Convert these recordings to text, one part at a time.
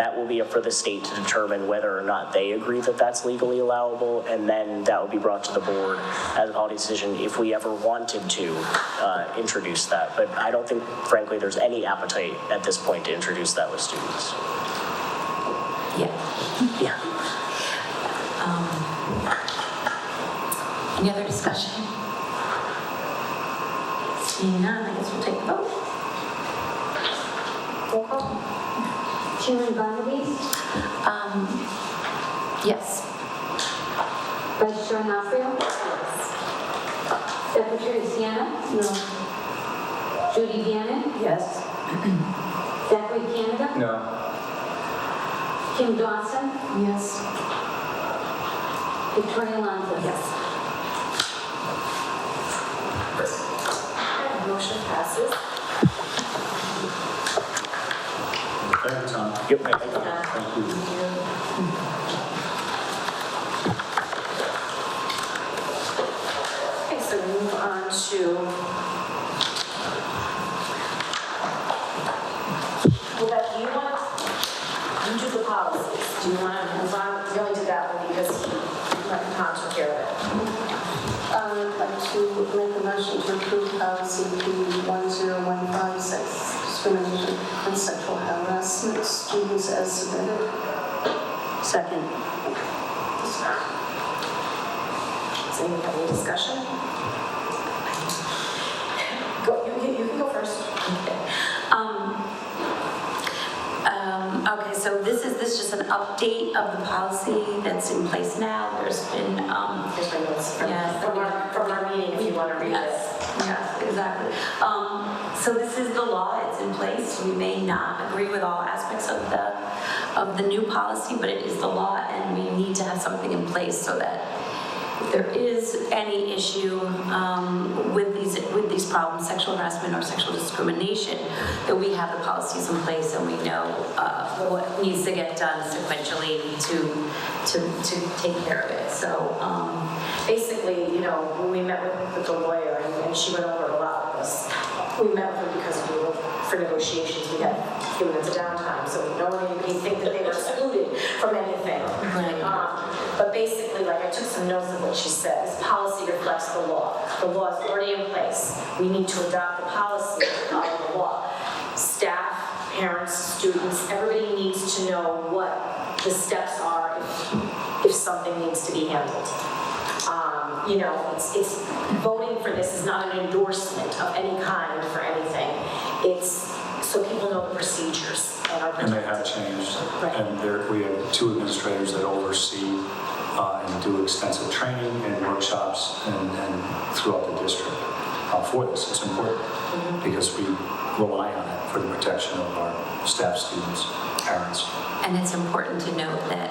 That will be up for the state to determine whether or not they agree that that's legally allowable, and then that will be brought to the board as a policy decision if we ever wanted to uh, introduce that. But I don't think, frankly, there's any appetite at this point to introduce that with students. Yeah. Yeah. Any other discussion? Seeing none, I guess we'll take the vote. Roll call. Chairman Bondi's, Um, yes. Registrar Nafrio. Secretary Sienna. No. Judy Bannon. Yes. Zachary Canada. No. Kim Dawson. Yes. Victoria Alonso. Yes. Motion passes. Thank you, Tom. Yep. Uh, Thank you. Okay, so we move on to. Well, Beth, do you want, you do the policies. Do you want to move on? We only did that one because he let Tom take care of it. Um, I would like to make a motion to approve policy P10156, discrimination and sexual harassment, students as submitted. Second. Does anyone have any discussion? Go, you, you- you can go first. Um, um, okay, so this is, this is just an update of the policy that's in place now. There's been, um, Here's my notes from, Yes. from our, from our meeting, if you want to read it. Yes, yes, exactly. Um, So this is the law, it's in place. We may not agree with all aspects of the, of the new policy, but it is the law, and we need to have something in place so that if there is any issue um, with these, with these problems, sexual harassment or sexual discrimination, that we have the policies in place and we know uh, what needs to get done sequentially to, to, to take care of it. So, um, basically, you know, when we met with, with the lawyer, and, and she went over a lot of this, we met with her because we were, for negotiations, we had a few minutes of downtime, so we don't want anybody to think that they were excluded from anything. Right. Um, But basically, like, I took some notes of what she said, this policy reflects the law. The law is already in place. We need to adopt the policy to follow the law. Staff, parents, students, everybody needs to know what the steps are if- if something needs to be handled um, you know, it's, it's, voting for this is not an endorsement of any kind for anything. It's so people know the procedures and are And they have protected. changed. Right. And there, we have two administrators that oversee uh, and do extensive training and workshops and and throughout the district uh, for this. It's important because we rely on it for the protection of our staff, students, parents. And it's important to note that,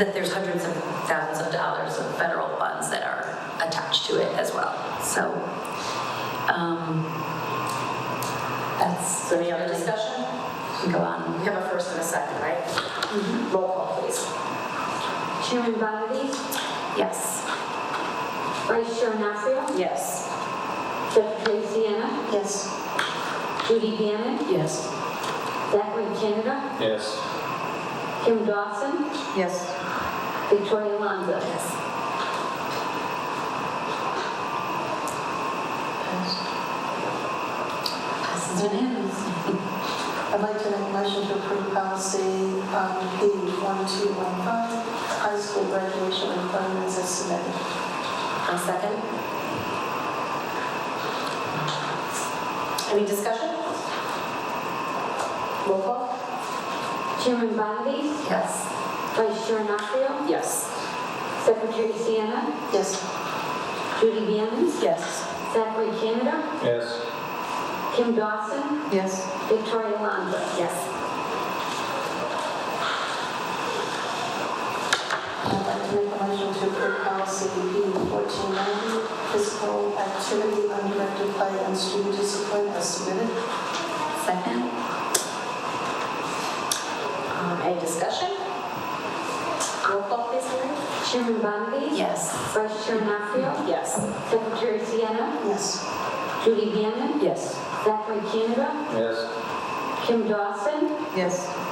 that there's hundreds of thousands of dollars of federal funds that are attached to it as well. So, um, that's. So any other discussion? Go on. We have a first and a second, right? Roll call, please. Chairman Bondi's, Yes. Vice Chair Nafrio. Yes. Secretary Sienna. Yes. Judy Bannon. Yes. Zachary Canada. Yes. Kim Dawson. Yes. Victoria Alonso. Passes unanimously. I'd like to make a motion to approve policy um, P1215, high school graduation requirements as submitted. One second. Any discussion? Roll call? Chairman Bondi's, Yes. Vice Chair Nafrio. Yes. Secretary Sienna. Yes. Judy Bannon. Yes. Zachary Canada. Yes. Kim Dawson. Yes. Victoria Alonso. Yes. I'd like to make a motion to approve policy P1490, physical activity, undirected play, and student discipline as submitted. Second? Um, Any discussion? Roll call, please, Lori. Chairman Bondi's, Yes. Vice Chair Nafrio. Yes. Secretary Sienna. Yes. Judy Bannon. Yes. Zachary Canada. Yes. Kim Dawson. Yes.